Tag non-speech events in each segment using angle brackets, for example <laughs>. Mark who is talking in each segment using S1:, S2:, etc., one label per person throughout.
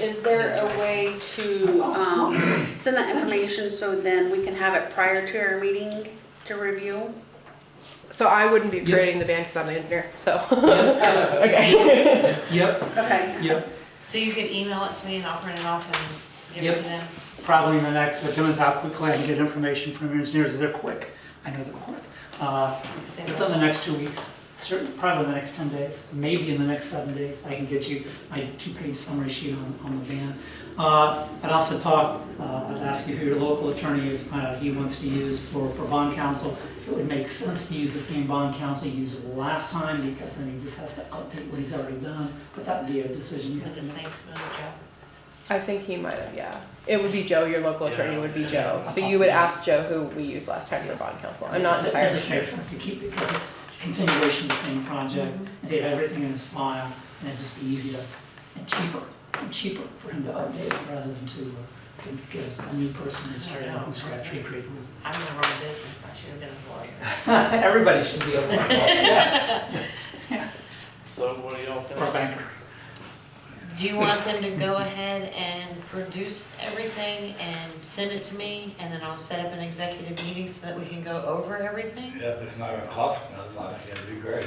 S1: Is there a way to um, send that information so then we can have it prior to our meeting to review?
S2: So I wouldn't be
S3: Yeah.
S2: creating the band because I'm the engineer, so. <laughs>
S3: Yep,
S2: Okay.
S3: yep,
S1: Okay.
S3: yep.
S4: So you could email it to me and I'll print it off and give it to
S3: Yep.
S4: them?
S3: Probably in the next, it depends how quickly I can get information from your engineers, they're quick, I know they're quick. Uh,
S4: Same
S3: Within the
S4: way.
S3: next two weeks, certainly, probably in the next 10 days, maybe in the next seven days, I can get you my two-page summary sheet on, on the ban. Uh, I'd also talk, uh, I'd ask you who your local attorney is, find out who he wants to use for, for bond counsel. It would make sense to use the same bond counsel he used last time, because then he just has to update what he's already done, but that would be a decision. you have
S4: Was it
S3: to make.
S4: same, was it Joe?
S2: I think he might have, yeah. It would be Joe, your local attorney would be Joe. So
S3: Yeah.
S2: you would ask Joe who we used last time for bond counsel. I'm not
S3: It it
S2: entirely
S3: just
S2: sure.
S3: makes sense to keep it, because it's continuation of the same project, and they have everything in his file, and it'd just be easier and cheaper, and cheaper for him to update rather than to, uh, to get a new person to start out and scratch recreate.
S4: I'm in the wrong business, I should have been a lawyer.
S3: <laughs> Everybody should be able to,
S5: So what do y'all think?
S3: or a banker.
S4: Do you want them to go ahead and produce everything and send it to me? And then I'll set up an executive meeting so that we can go over everything?
S6: Yep, if not a cough, that's not, it'd be great.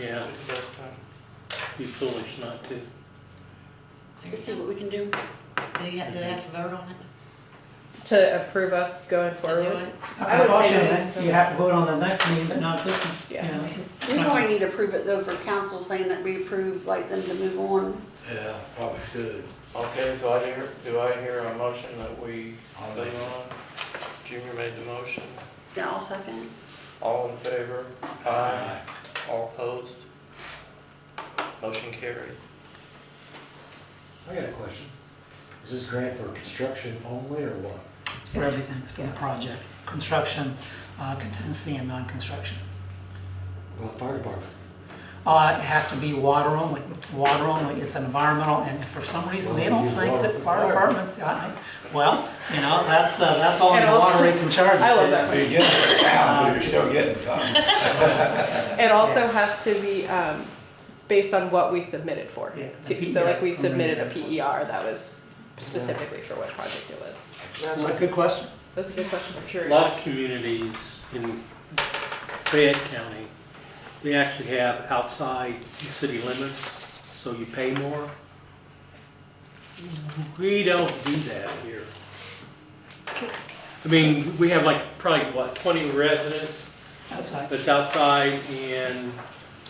S5: Yeah, it's the best time. Be foolish not to.
S1: Let's see what we can do.
S4: Do you, do they have to vote on it?
S2: To approve us going
S4: to do
S2: forward.
S4: it?
S1: I would say
S3: Caution,
S2: that-
S3: You have to vote on the next meeting, but not this one.
S2: Yeah.
S1: We probably need to approve it though for council saying that we approve, like them to move on.
S6: Yeah, probably should.
S5: Okay, so I hear, do I hear a motion that we
S6: I'll
S5: vote
S6: make it.
S5: on? Junior made the motion.
S1: Yeah, I'll second.
S5: All in favor? Aye. All opposed? Motion carried.
S7: I got a question. Is this grant for construction only or what?
S3: It's for everything, it's for the project, construction, uh, contingency, and non-construction.
S7: Well, fire department.
S3: Uh, it has to be water only, water only, it's environmental, and for some reason, they don't think that fire departments, I, I- well, you know, that's, uh, that's all in the water rates and charges.
S2: I love that
S6: You're getting it down, so you're still getting some.
S2: It also has to be um, based on what we submitted for.
S3: Yeah,
S2: too.
S3: the E
S2: So like we
S3: PER.
S2: submitted a PER that was specifically for what project it was.
S3: That's a good question.
S2: That's a good question for
S5: A
S2: Sherry.
S5: lot of communities in Fayette County, they actually have outside the city limits, so you pay more. We don't do that here. I mean, we have like probably, what, 20 residents
S3: Outside,
S5: that's outside and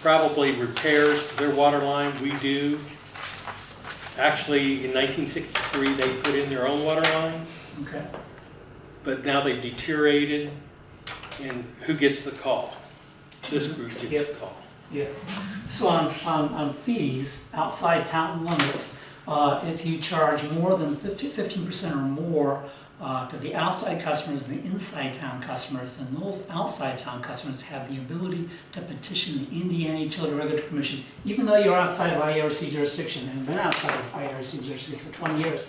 S5: probably repairs to their water line, we do. Actually, in 1963, they put in their own water lines
S3: okay.
S5: but now they've deteriorated, and who gets the call? This group gets the call.
S3: Yeah. So on, on, on fees, outside town limits, uh, if you charge more than fifty, fifteen percent or more, uh, to the outside customers, and the inside town customers, and those outside town customers have the ability to petition the Indiana Utility Regulatory Commission, even though you're outside of IRC jurisdiction, and been outside of IRC jurisdiction for twenty years,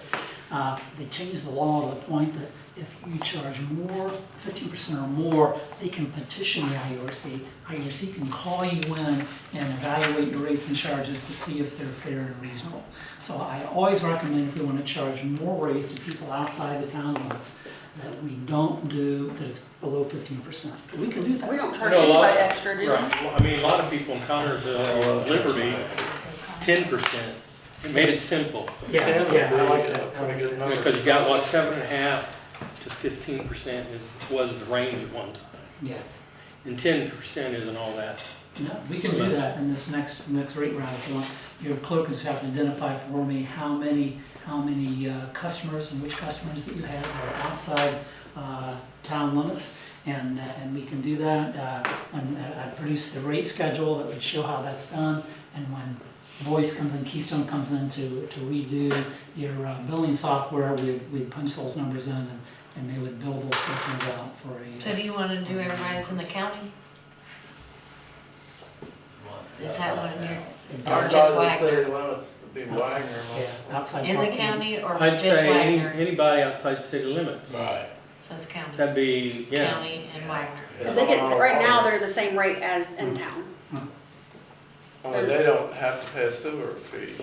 S3: uh, they changed the law to the point that if you charge more, fifteen percent or more, they can petition the IURC. IURC can call you in and evaluate your rates and charges to see if they're fair and reasonable. So I always recommend if we want to charge more rates to people outside the town limits, that we don't do, that it's below fifteen percent. We can do
S1: We
S3: that.
S1: don't charge
S5: No, a lot-
S1: anybody extra, do we?
S5: I mean, a lot of people in Connersville, Liberty, ten percent. It made it simple,
S3: Yeah, yeah, I like that. I like that.
S5: because you got, what, seven and a half to fifteen percent is, was the range at one time.
S3: Yeah,
S5: And ten percent isn't all that.
S3: no, we can do that in this next, next rate round if you want. Your clerk is have to identify for me how many, how many uh, customers and which customers that you have are outside uh, town limits. And, uh, and we can do that. Uh, When I I produce the rate schedule that would show how that's done. And when Voice comes in, Keystone comes in to, to redo your uh, billing software, we, we punch those numbers in and and they would bill those customers out for a.
S4: So do you want to do everybody that's in the county? Is that one you're, or just Wagner?
S5: limits would be
S3: Wagner Yeah, outside.
S4: In the
S3: parking.
S4: county or
S5: I'd
S4: just
S5: say any-
S4: Wagner?
S5: anybody outside city limits.
S6: Right.
S4: So it's county,
S5: That'd be, yeah.
S4: county and Wagner.
S1: Cause they get, right now, they're the same rate as in town.
S8: Only they don't have to pay a sewer fee.